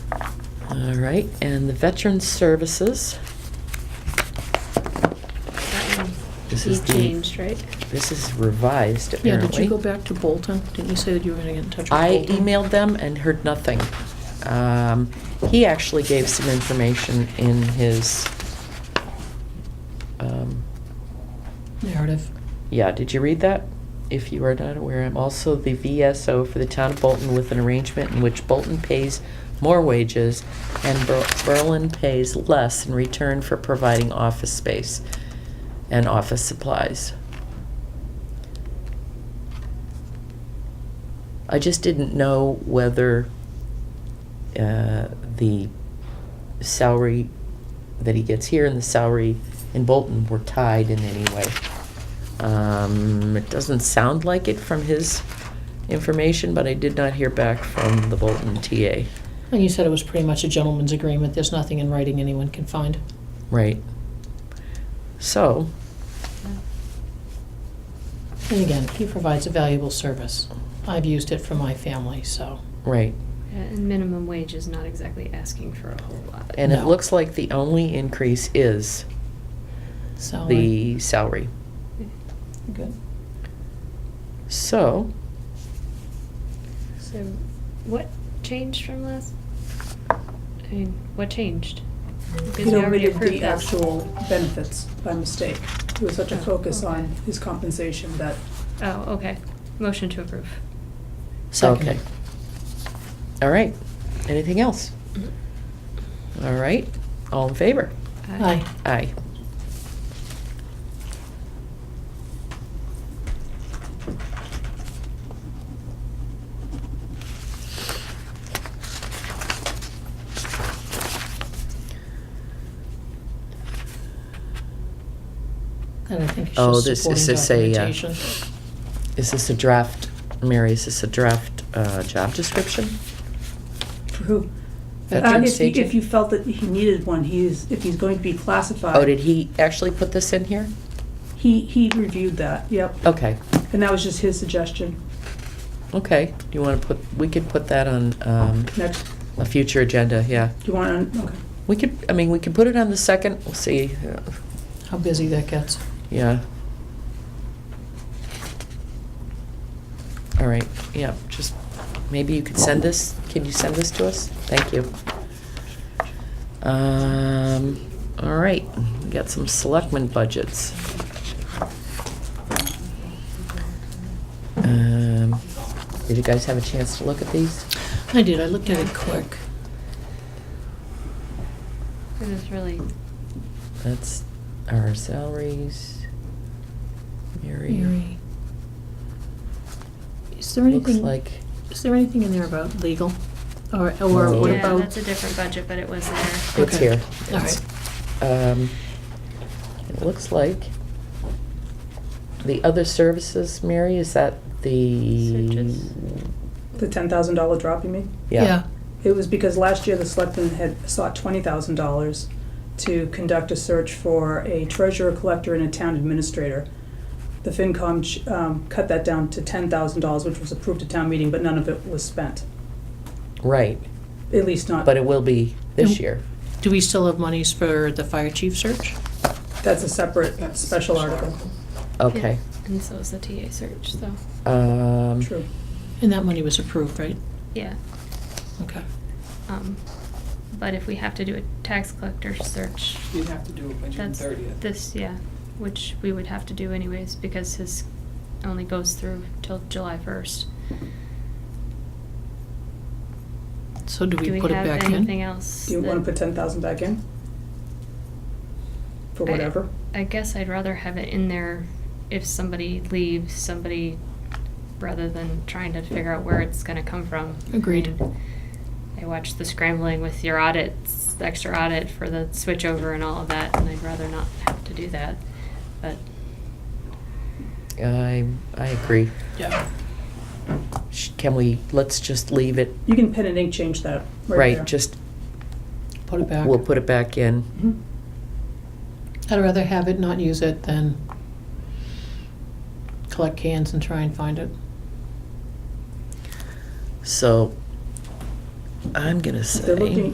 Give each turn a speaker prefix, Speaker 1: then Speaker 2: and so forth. Speaker 1: All right, and the Veteran Services,
Speaker 2: That one,
Speaker 1: This
Speaker 2: he
Speaker 1: is the-
Speaker 2: changed, right?
Speaker 1: this is revised
Speaker 3: Yeah, did you
Speaker 1: apparently.
Speaker 3: go back to Bolton? Didn't you say that you were gonna get in touch with
Speaker 1: I
Speaker 3: Bolton?
Speaker 1: emailed them and heard nothing. Um, He actually gave some information in his, um,
Speaker 3: Narrative.
Speaker 1: Yeah, did you read that? If you are not aware, I'm also the VSO for the town of Bolton with an arrangement in which Bolton pays more wages and Ber- Berlin pays less in return for providing office space and office supplies. I just didn't know whether uh, the salary that he gets here and the salary in Bolton were tied in any way. Um, it doesn't sound like it from his information, but I did not hear back from the Bolton TA.
Speaker 3: And you said it was pretty much a gentleman's agreement. There's nothing in writing anyone can find.
Speaker 1: Right. So,
Speaker 3: And again, he provides a valuable service. I've used it for my family, so.
Speaker 1: right.
Speaker 2: Yeah, And minimum wage is not exactly asking for a whole lot.
Speaker 1: And it
Speaker 3: No.
Speaker 1: looks like the only increase is
Speaker 3: so
Speaker 1: the salary.
Speaker 3: Good.
Speaker 1: So,
Speaker 2: So, what changed from last? I mean, what changed? Because
Speaker 4: You
Speaker 2: we
Speaker 4: know, we
Speaker 2: already
Speaker 4: did
Speaker 2: approved
Speaker 4: the
Speaker 2: this.
Speaker 4: actual benefits by mistake. There was such a
Speaker 2: Oh,
Speaker 4: focus
Speaker 2: okay.
Speaker 4: on his compensation that
Speaker 2: Oh, okay. Motion to approve.
Speaker 3: Second.
Speaker 1: okay. All right. Anything else? All right. All in favor?
Speaker 3: Aye.
Speaker 1: Aye.
Speaker 3: And I think it's
Speaker 1: Oh,
Speaker 3: just
Speaker 1: this-
Speaker 3: supporting
Speaker 1: this is a, uh,
Speaker 3: documentation.
Speaker 1: Is this a draft, Mary, is this a draft uh, job description?
Speaker 4: for who? Uh,
Speaker 1: Veterans
Speaker 4: if, he-
Speaker 1: agent?
Speaker 4: if you felt that he needed one, he is, if he's going to be classified.
Speaker 1: Oh, did he actually put this in here?
Speaker 4: He, he reviewed that, yep.
Speaker 1: Okay,
Speaker 4: And that was just his suggestion.
Speaker 1: okay. Do you want to put, we could put that on um,
Speaker 4: Next, do
Speaker 1: a future agenda, yeah.
Speaker 4: you want, to okay.
Speaker 1: We could, I mean, we could put it on the second, we'll see, uh,
Speaker 3: How busy that gets.
Speaker 1: yeah. All right, yeah, just, maybe you could send this, can you send this to us? Thank you. Um, all right, we got some selectmen budgets. Um, did you guys have a chance to look at these?
Speaker 3: I did, I looked at it quick.
Speaker 2: This is really,
Speaker 1: That's our salaries. Mary,
Speaker 3: Mary. Is there
Speaker 1: looks
Speaker 3: anything?
Speaker 1: like,
Speaker 3: Is there anything in there about legal? Or, or what
Speaker 1: No.
Speaker 2: yeah,
Speaker 3: about?
Speaker 2: that's a different budget, but it was there.
Speaker 1: it's
Speaker 3: Okay.
Speaker 1: here.
Speaker 3: All
Speaker 1: It's-
Speaker 3: right.
Speaker 1: Um, it looks like the other services, Mary, is that the?
Speaker 2: Searches.
Speaker 4: The ten thousand dollar drop, you mean?
Speaker 1: Yeah,
Speaker 4: It was because last year the selectmen had sought twenty thousand dollars to conduct a search for a treasurer, collector, and a town administrator. The FinCom ch- um, cut that down to ten thousand dollars, which was approved at town meeting, but none of it was spent,
Speaker 1: right,
Speaker 4: at least not.
Speaker 1: but it will be this
Speaker 3: And-
Speaker 1: year.
Speaker 3: Do we still have monies for the fire chief search?
Speaker 4: That's a separate special article,
Speaker 1: Okay.
Speaker 2: Yeah, And so was the TA search, so,
Speaker 1: Um,
Speaker 4: true.
Speaker 3: And that money was approved, right?
Speaker 2: yeah.
Speaker 3: Okay.
Speaker 2: Um, but if we have to do a tax collector search,
Speaker 5: You'd have to do it by June
Speaker 2: That's
Speaker 5: thirtieth.
Speaker 2: this, yeah, which we would have to do anyways, because his only goes through till July first.
Speaker 3: So do we put it back in?
Speaker 2: have anything else?
Speaker 4: Do you wanna
Speaker 2: that-
Speaker 4: put ten thousand back in? For
Speaker 2: I-
Speaker 4: whatever?
Speaker 2: I guess I'd rather have it in there if somebody leaves, somebody, rather than trying to figure out where it's gonna come from.
Speaker 3: Agreed.
Speaker 2: I mean, I watched the scrambling with your audits, the extra audit for the switchover and all of that, and I'd rather not have to do that, but.
Speaker 1: I, I agree.
Speaker 3: Yeah.
Speaker 1: Sh- Can we, let's just leave it,
Speaker 4: You can pen and ink change that right there.
Speaker 1: right, just,
Speaker 3: Put it back.
Speaker 1: we'll put it back in.
Speaker 4: Mhm.
Speaker 3: I'd rather have it, not use it, than collect cans and try and find it.
Speaker 1: So, I'm gonna say.
Speaker 4: They're looking,